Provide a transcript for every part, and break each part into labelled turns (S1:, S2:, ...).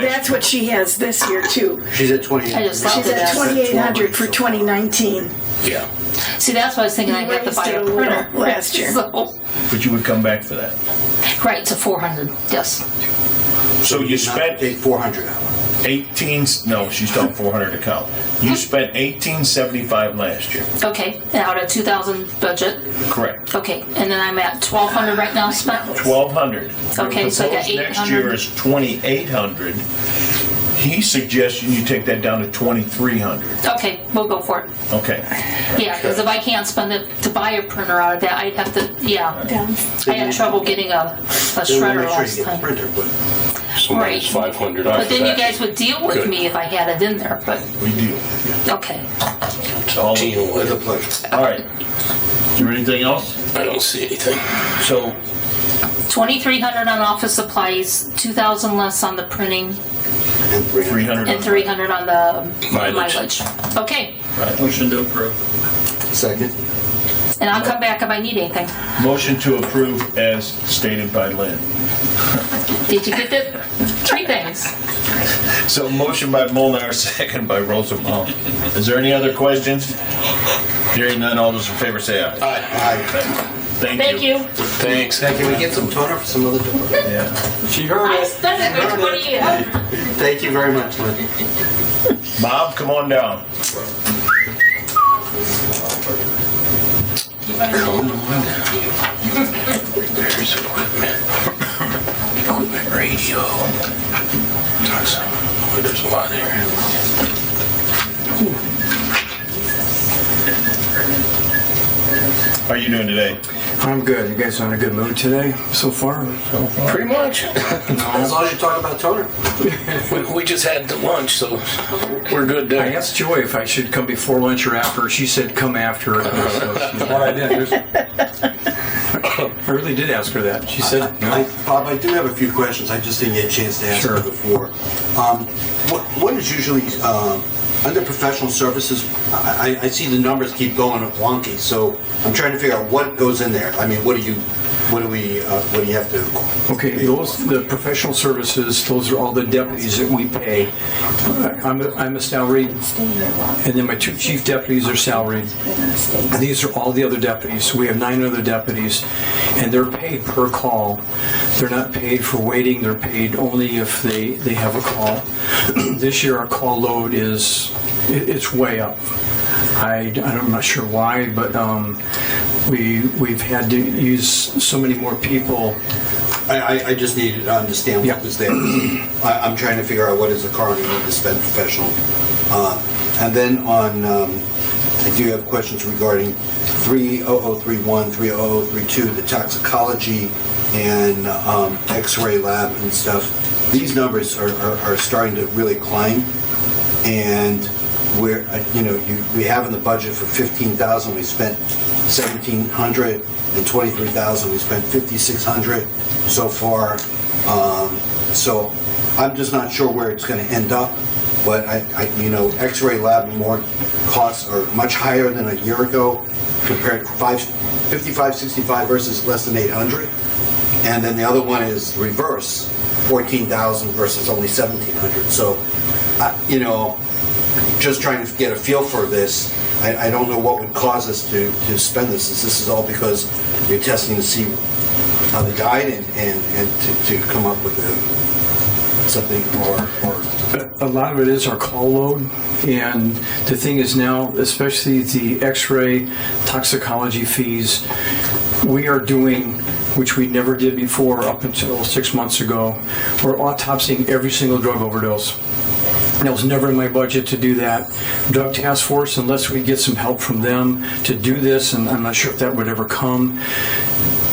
S1: that's what she has this year too.
S2: She's at twenty.
S3: I just thought
S1: She's at
S3: that.
S1: twenty eight hundred for twenty nineteen.
S4: Yeah,
S3: See, that's what I was thinking. I got to buy
S1: Raised it
S3: a
S1: a little
S3: printer
S1: last year.
S3: So-
S4: but you would come back for that.
S3: right to four hundred. Yes.
S4: So you spent
S2: Take four hundred out.
S4: eighteen, no, she's done four hundred account. You spent eighteen seventy-five last year.
S3: Okay. Out of two thousand budget.
S4: Correct.
S3: Okay, and then I'm at twelve hundred right now spent.
S4: Twelve hundred.
S3: Okay, so I got
S4: Next year
S3: 800.
S4: is twenty-eight hundred. He's suggesting you take that down to twenty-three hundred.
S3: Okay, we'll go for it.
S4: Okay,
S3: Yeah, because if I can't spend it to buy a printer out of that, I'd have to, yeah.
S1: Down.
S3: I had trouble getting a, a
S2: Then we'll
S3: shredder
S2: make sure
S3: last
S2: you get the
S3: time.
S2: printer, but
S5: So minus
S3: Right.
S5: 500 off
S3: But
S5: of
S3: then you
S5: that.
S3: guys would deal with
S5: Good.
S3: me if I had it in there, but,
S4: we do.
S3: okay.
S4: It's all-
S5: Deal
S2: with
S5: with
S2: a
S5: it.
S2: pleasure.
S4: All right. Is there anything else?
S5: I don't see anything.
S4: So
S3: Twenty-three hundred on office supplies, two thousand less on the printing,
S2: And three
S4: three
S2: hundred.
S4: hundred.
S3: and three hundred on the
S5: Mileage.
S3: mileage. Okay,
S6: Motion to approve.
S2: Second.
S3: and I'll come back if I need anything.
S4: Motion to approve as stated by Lynn.
S3: Did you get that? Three things.
S4: So motion by Molnar, second by Rosenbaum. Is there any other questions? Hearing none, all those in favor say aye.
S2: Aye.
S4: Thank
S3: Thank
S4: you.
S3: you.
S5: Thanks.
S2: Now, can we get some toner for some other door?
S4: Yeah.
S6: She heard
S3: I
S6: it.
S3: spent a good twenty years.
S2: Thank you very much, Lynn.
S4: Bob, come on down.
S5: Come on down. There's equipment. Equipment radio. Talks- boy, There's a lot there.
S4: How are you doing today?
S7: I'm good. You guys are in a good mood today so far?
S5: Pretty much.
S2: Uh, As long as you talk about toner.
S5: We, we just had the lunch, so we're good there.
S7: I asked Joy if I should come before lunch or after. She said come after. So that's what I did. There's- I really did ask her that. She said
S2: I,
S7: no.
S2: Bob, I do have a few questions. I just didn't get a chance to ask
S7: Sure.
S2: them before. Um, what, what is usually um under professional services? I, I I see the numbers keep going up wonky, so I'm trying to figure out what goes in there. I mean, what do you, what do we, uh, what do you have to?
S7: Okay, those the professional services. Those are all the deputies that we pay. I'm a, I'm a salaried, and then my two chief deputies are salaried. These are all the other deputies. We have nine other deputies, and they're paid per call. They're not paid for waiting, they're paid only if they, they have a call. This year, our call load is, it- it's way up. I, I'm not sure why, but um, we, we've had to use so many more people.
S2: I, I, I just needed to understand
S7: Yeah.
S2: what was there. I, I'm trying to figure out what is the coroner need to spend professional. Uh, and then on, um, I do have questions regarding 30031, 30032, the toxicology and um, X-ray lab and stuff. These numbers are, are, are starting to really climb, and we're uh, you know you, we have in the budget for 15,000. We spent 1,700 and 23,000. We spent 5,600 so far. Um, so I'm just not sure where it's going to end up. But I, I, you know, X-ray lab and more costs are much higher than a year ago, compared to five, 55, 65 versus less than 800. And then the other one is reverse, 14,000 versus only 1,700. So, I- you know, just trying to get a feel for this. I, I don't know what would cause us to, to spend this. Is This is all because you're testing to see how they died and, and, and to, to come up with a, something or, or
S7: A lot of it is our call load, and the thing is now, especially the x-ray toxicology fees, we are doing, which we never did before up until six months ago, we're autopsying every single drug overdose. And it was never in my budget to do that. Drug Task Force, unless we get some help from them to do this, and I'm not sure if that would ever come,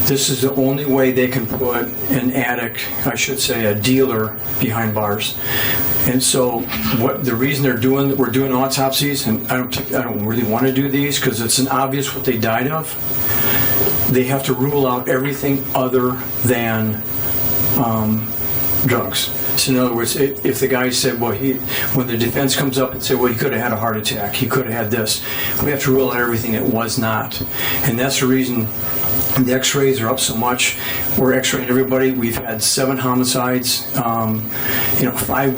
S7: this is the only way they can put an addict, I should say, a dealer behind bars. And so, what the reason they're doing, we're doing autopsies, and I don't, think- I don't really want to do these because it's an obvious what they died of. They have to rule out everything other than drugs. So in other words, i- if the guy said, well, he, when the defense comes up and say, well, he could have had a heart attack, he could have had this, we have to rule out everything that was not. And that's the reason the x-rays are up so much. We're x-raying everybody. We've had seven homicides, um, you know, five